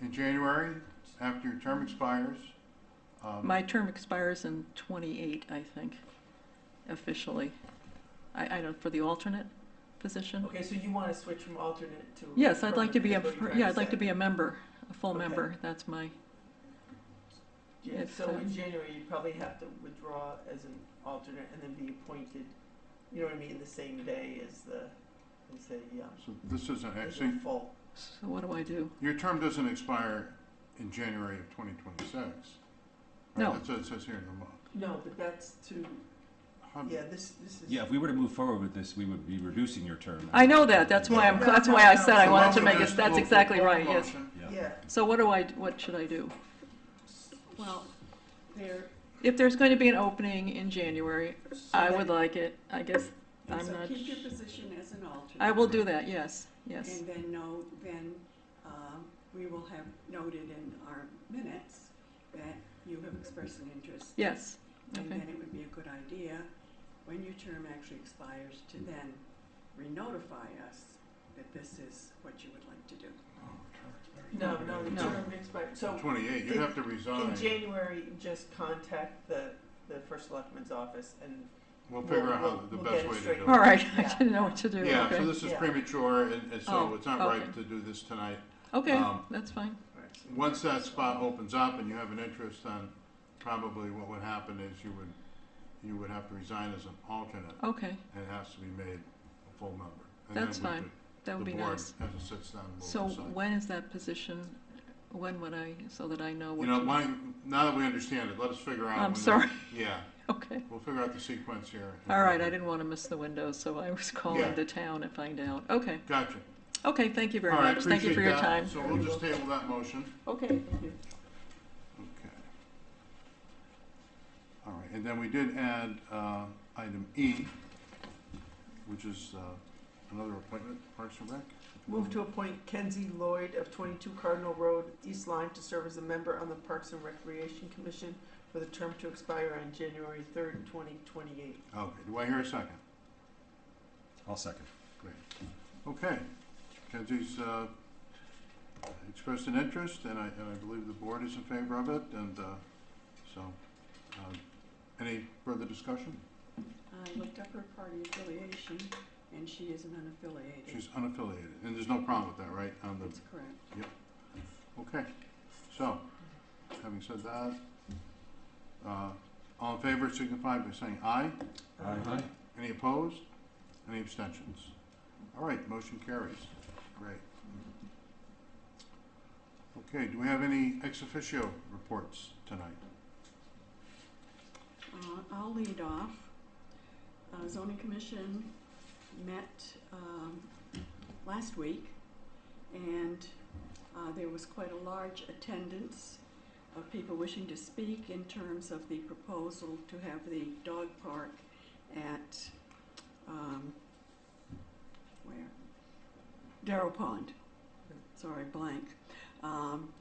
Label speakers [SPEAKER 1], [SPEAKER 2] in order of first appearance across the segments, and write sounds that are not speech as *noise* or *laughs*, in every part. [SPEAKER 1] in January, after your term expires. um,
[SPEAKER 2] My term expires in twenty-eight, I think, officially. I, I don't, for the alternate position?
[SPEAKER 3] Okay, so you want to switch from alternate to?
[SPEAKER 2] Yes, I'd like to be a,
[SPEAKER 3] permanent, is what you're
[SPEAKER 2] yeah,
[SPEAKER 3] trying
[SPEAKER 2] I'd like to be a member, a full
[SPEAKER 3] Okay.
[SPEAKER 2] member, that's my,
[SPEAKER 3] say. Yeah,
[SPEAKER 2] if,
[SPEAKER 3] so
[SPEAKER 2] um,
[SPEAKER 3] in January, you'd probably have to withdraw as an alternate and then be appointed, you know what I mean, the same day as the, as the, um,
[SPEAKER 1] So this isn't
[SPEAKER 3] as
[SPEAKER 1] actually,
[SPEAKER 3] the full.
[SPEAKER 2] so what do I do?
[SPEAKER 1] your term doesn't expire in January of 2026. right?
[SPEAKER 2] No.
[SPEAKER 1] That's what it says here in the law.
[SPEAKER 3] No, but that's to,
[SPEAKER 1] Hum-
[SPEAKER 3] yeah, this, this is.
[SPEAKER 4] Um, Yeah, if we were to move forward with this, we would be reducing your term.
[SPEAKER 2] I know that, that's why I'm,
[SPEAKER 3] No,
[SPEAKER 2] that's
[SPEAKER 3] no,
[SPEAKER 2] why I
[SPEAKER 3] no.
[SPEAKER 2] said I
[SPEAKER 1] So
[SPEAKER 2] wanted
[SPEAKER 1] why
[SPEAKER 2] to
[SPEAKER 1] don't
[SPEAKER 2] make
[SPEAKER 1] we
[SPEAKER 2] it,
[SPEAKER 1] just
[SPEAKER 2] that's
[SPEAKER 1] do a
[SPEAKER 2] exactly
[SPEAKER 1] full
[SPEAKER 2] right, yes.
[SPEAKER 1] motion?
[SPEAKER 4] Yeah.
[SPEAKER 3] Yeah,
[SPEAKER 2] So what do I, what should I do?
[SPEAKER 5] Well, there,
[SPEAKER 2] If there's going to be an opening in January, I would like it, I guess, I'm
[SPEAKER 5] so
[SPEAKER 2] not,
[SPEAKER 5] keep your position as an alternate.
[SPEAKER 2] I will do that, yes, yes.
[SPEAKER 5] And then no, then, um, we will have noted in our minutes that you have expressed an interest.
[SPEAKER 2] Yes,
[SPEAKER 5] And
[SPEAKER 2] okay.
[SPEAKER 5] then it would be a good idea, when your term actually expires, to then re-notify us that this is what you would like to do.
[SPEAKER 3] no, no, the
[SPEAKER 2] No.
[SPEAKER 3] term expires, so
[SPEAKER 1] 28, you
[SPEAKER 3] In-
[SPEAKER 1] have to
[SPEAKER 3] in
[SPEAKER 1] resign.
[SPEAKER 3] January, just contact the, the first selectman's office and
[SPEAKER 1] We'll figure out how, the
[SPEAKER 3] We'll- we'll
[SPEAKER 1] best
[SPEAKER 3] get it
[SPEAKER 1] way to
[SPEAKER 3] straight.
[SPEAKER 1] do
[SPEAKER 2] All
[SPEAKER 1] it.
[SPEAKER 2] right, *laughs* I
[SPEAKER 3] Yeah.
[SPEAKER 2] didn't know what to do,
[SPEAKER 1] Yeah, so
[SPEAKER 2] okay.
[SPEAKER 1] this is
[SPEAKER 3] Yeah.
[SPEAKER 1] premature, and and
[SPEAKER 2] Oh,
[SPEAKER 1] so it's not
[SPEAKER 2] okay.
[SPEAKER 1] right to do this tonight.
[SPEAKER 2] Okay,
[SPEAKER 1] um,
[SPEAKER 2] that's fine.
[SPEAKER 1] Once that spot opens up and you have an interest, then probably what would happen is you would, you would have to resign as an alternate,
[SPEAKER 2] Okay,
[SPEAKER 1] and it has to be made a full member. And then
[SPEAKER 2] That's
[SPEAKER 1] we
[SPEAKER 2] fine.
[SPEAKER 1] could-
[SPEAKER 2] that would be nice.
[SPEAKER 1] The board has a sits-down vote.
[SPEAKER 2] So
[SPEAKER 1] decide.
[SPEAKER 2] when is that position, when would I, so that I know
[SPEAKER 1] You
[SPEAKER 2] what
[SPEAKER 1] know,
[SPEAKER 2] to-
[SPEAKER 1] why, now that we understand it, let us figure out.
[SPEAKER 2] I'm
[SPEAKER 1] when the-
[SPEAKER 2] sorry.
[SPEAKER 1] Yeah,
[SPEAKER 2] *laughs* Okay,
[SPEAKER 1] we'll figure out the sequence here.
[SPEAKER 2] all right, I didn't want to miss the window, so I was
[SPEAKER 1] Yeah.
[SPEAKER 2] calling the town to find out. Okay,
[SPEAKER 1] Gotcha.
[SPEAKER 2] okay, thank you very
[SPEAKER 1] All right,
[SPEAKER 2] much, thank you for
[SPEAKER 1] appreciate
[SPEAKER 2] your
[SPEAKER 1] that.
[SPEAKER 2] time.
[SPEAKER 1] So we'll just table that motion.
[SPEAKER 2] Okay, thank you.
[SPEAKER 1] Okay. All right, and then we did add uh, item E, which is uh, another appointment, Parks and Rec.
[SPEAKER 3] Move to appoint Kenzie Lloyd of 22 Cardinal Road, East Lyme, to serve as a member on the Parks and Recreation Commission with a term to expire on January 3rd, 2028.
[SPEAKER 1] Okay, do I hear a second?
[SPEAKER 4] I'll second.
[SPEAKER 1] Great. Okay, Kenzie's uh, expressed an interest, and I, and I believe the board is in favor of it, and uh, so, uh, any further discussion?
[SPEAKER 5] I looked up her Uh, party affiliation, and she is an unaffiliated.
[SPEAKER 1] She's unaffiliated, and there's no problem with that, right, on the
[SPEAKER 5] That's correct.
[SPEAKER 1] Okay, so, having said that, uh, all in favor signify by saying aye.
[SPEAKER 4] Aye.
[SPEAKER 1] Any opposed? Any abstentions? All right, motion carries. Great. Okay, do we have any ex officio reports tonight?
[SPEAKER 5] Uh, I'll lead off. Uh, zoning commission met, um, last week, and, uh, there was quite a large attendance of people wishing to speak in terms of the proposal to have the dog park at, um, where? Darrow Pond. Sorry, blank. Um,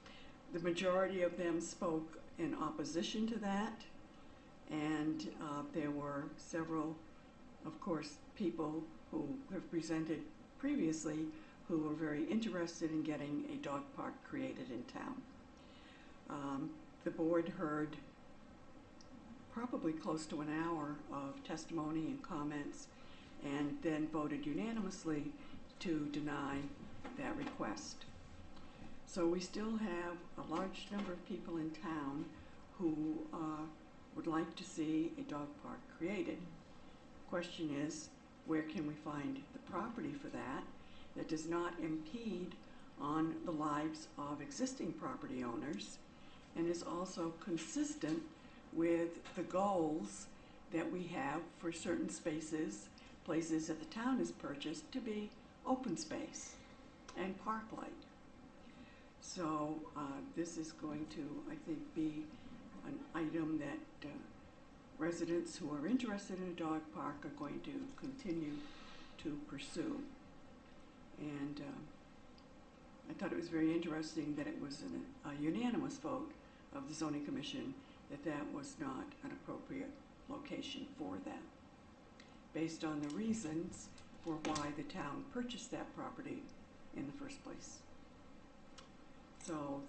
[SPEAKER 5] the majority of them spoke in opposition to that. And uh, there were several, of course, people who have presented previously who were very interested in getting a dog park created in town. Um, the board heard probably close to an hour of testimony and comments and then voted unanimously to deny that request. So we still have a large number of people in town who uh, would like to see a dog park created. Question is, where can we find the property for that that does not impede on the lives of existing property owners and is also consistent with the goals that we have for certain spaces, places that the town has purchased to be open space and park-like. So uh, this is going to, I think, be an item that uh, residents who are interested in a dog park are going to continue to pursue. And um, I thought it was very interesting that it was an- a unanimous vote of the zoning commission that that was not an appropriate location for that, based on the reasons for why the town purchased that property in the first place. So